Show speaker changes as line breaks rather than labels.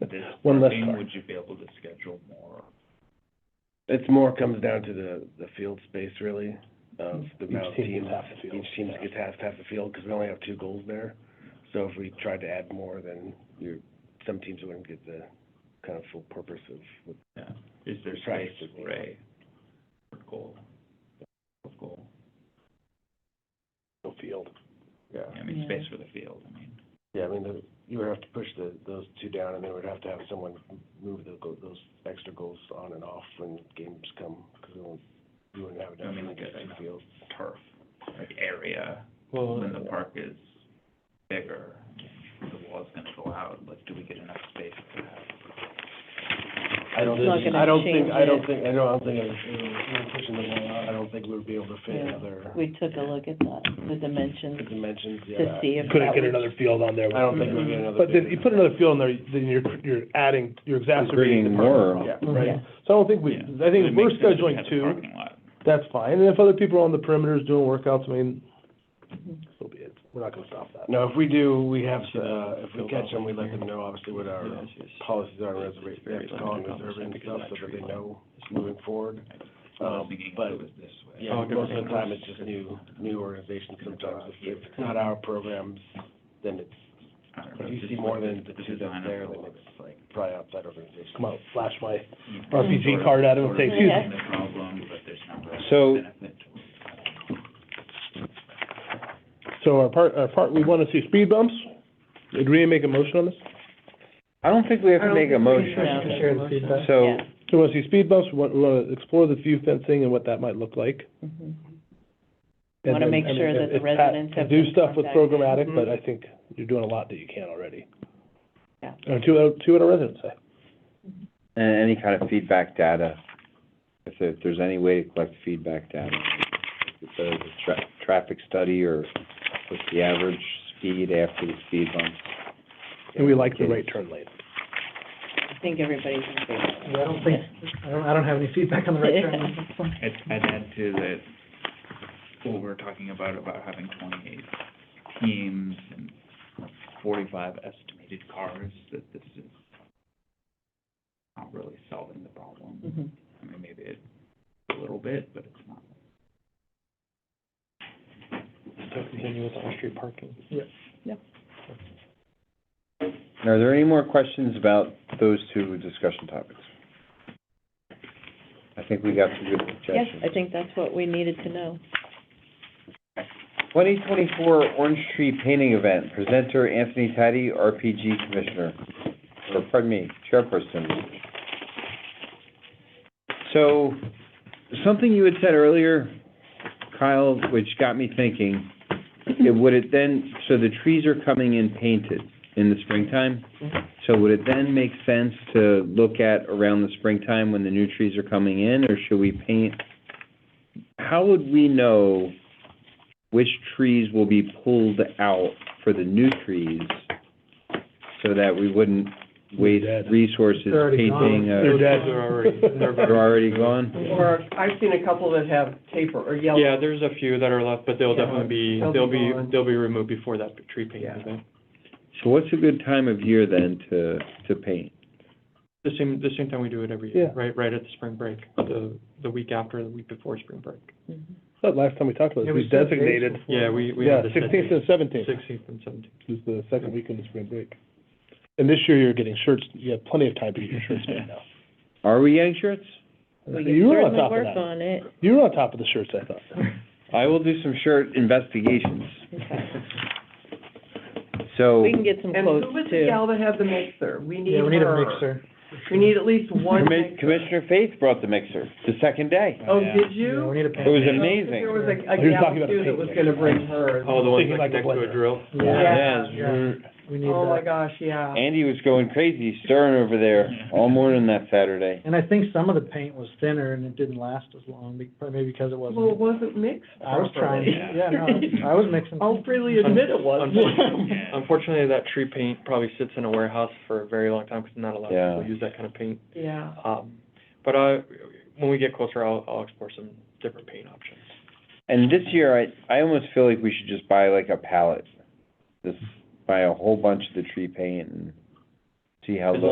is
One less
parking,
car.
Would you be able to schedule more?
It's more comes down to the, the field space really, of the
Each
amount of
team
teams.
gets half the field,
Each team
yeah.
gets half, half the field, because we only have two goals there. So if we tried to add more, then you're, some teams wouldn't get the kind of full purpose of what
Yeah, is there
Try
space
to do
for a goal, a goal?
the field. Yeah.
I mean,
Yeah.
space for the field, I mean.
Yeah, I mean, the- you would have to push the, those two down, and they would have to have someone move the, go- those extra goals on and off when games come, because we won't, we wouldn't have
I
enough
mean,
for
like a-
two fields.
turf, like area,
Well,
when the park is bigger, the wall's gonna go out, like, do we get enough space for that?
I don't
It's not
think,
gonna
I don't think,
change
I don't
it.
think, I don't, I don't think, I- you know, we're pushing the wall out, I don't think we would be able to fit
Yeah.
another
We took a look at that, the dimensions,
dimensions,
to
yeah.
see if that
couldn't get
would-
another field on there.
I don't think we'd get another.
But then
big
you put another field in there, then you're, you're adding, you're exacerbating the parking
Creating more.
Yeah.
problem, right?
Yeah.
So I don't think we,
Yeah.
I think
It
if we're
makes sense to have
scheduling
a
two,
Parking lot,
that's fine, and if other people are on the perimeters doing workouts, I mean, so be it, we're not gonna stop that.
No, if we do, we have, to, uh, if we catch them, we let them know obviously what our policies are, reservation, they have to call and reserve it and stuff, so that they know moving forward.
I was
Um,
thinking if
but
it was this way.
Yeah, Oh, most of the time, it's just new, new organizations sometimes, if, if it's not our programs, then it's
I don't
if
know,
you
just
see
like
more
the-
than the
the
two that's
design of
there,
the
then
wall,
it's-
it's like.
probably outside organizations.
Come out, flash my,
you can
RPG
sort of-
card at 'em
sort
and
of
say,
"Excuse
solve
me."
The problem, but there's no real
So-
benefit to it.
so our part, our part, we wanna see speed bumps, did we make a motion on this?
I don't think we have to make a
have
motion,
to share the feedback.
so,
Yeah.
So we wanna see speed bumps, we want- we wanna explore the view fencing and what that might look like.
Mhm.
And
Wanna
then-
make
and
sure
if-
that the
if Pat
residents
can
have
Do
been
stuff with
contacted. Mm-hmm.
programmatic, but I think you're doing a lot that you can already.
Yeah.
And two, uh, two at a residence, say.
and any kind of feedback data, if there- if there's any way to collect feedback data. If there's a tra- traffic study or what's the average speed after the speed bumps.
and we like the right turn lane.
I think everybody's in favor.
I don't think, I don't, I don't have any feedback on the right turn.
I'd, I'd add to that, what we're talking about, about having twenty-eight teams and forty-five estimated cars, that this is not really solving the problem.
Mhm.
I mean, maybe it, a little bit, but it's not.
Continue with on-street parking.
Are there any more questions about those two discussion topics? I think we got some good
Yes,
suggestions.
I think that's what we needed to know.
Twenty twenty-four Orange Tree Painting Event, presenter Anthony Taddy, RPG Commissioner, or pardon me, Chairperson. So, something you had said earlier, Kyle, which got me thinking, it would it then, so the trees are coming in painted in the springtime? So would it then make sense to look at around the springtime when the new trees are coming in, or should we paint? How would we know which trees will be pulled out for the new trees so that we wouldn't waste
They're dead.
resources
They're already gone.
painting uh, a,
They're dead, they're already,
they're already gone?
Or, I've seen a couple that have taper or yellow.
Yeah, there's a few that are left, but they'll
Yeah.
definitely be,
They'll be
they'll be,
gone.
they'll be removed before that tree painting
Yeah.
event.
So what's a good time of year then to, to paint?
The same, the same time we do it every year,
Yeah.
right, right at the spring break, the, the week after, the week before spring break.
Mhm.
But last time we talked about
It
this,
was
we
six days
designated,
Yeah, we, we
yeah,
have the
sixteenth and seventeenth,
Sixteenth and seventeenth.
is the second week of the spring break. And this year you're getting shirts, you have plenty of time to get your shirts made now.
Are we getting shirts?
We
You
can
were on
certainly
top of
work
that.
on it.
You were on top of the shirts, I thought.
I will do some shirt investigations.
Okay.
So,
We can get some
And who
quotes
was the
too.
gal that had the mixer? We need
Yeah, we need a
her.
mixer.
We need at least one
Commi-
mixer.
Commissioner Faith brought the mixer the second day.
Oh,
Yeah.
did
Yeah,
you?
we need a
It
pan.
was
There
amazing.
was a, a
He was
gal
talking about
too
a
that was
pink
gonna
mixer.
bring hers.
Oh, the ones
Thinking
that
like a
connect to
blender.
a drill?
Yeah.
Yes.
Yeah, we need
Oh, my
that.
gosh, yeah.
Andy was going crazy stirring over there all morning that Saturday.
And I think some of the paint was thinner and it didn't last as long, be- probably because it
Well, it
wasn't.
wasn't mixed
I was trying,
properly.
yeah, no, I was mixing.
I'll freely admit it wasn't.
Unfortunately,
Yeah.
unfortunately, that tree paint probably sits in a warehouse for a very long time, because not a lot
Yeah.
of people use that kind of paint.
Yeah.
Um, but I, when we get closer, I'll, I'll explore some different paint options.
And this year, I, I almost feel like we should just buy like a pallet. Just buy a whole bunch of the tree paint and see how
As
low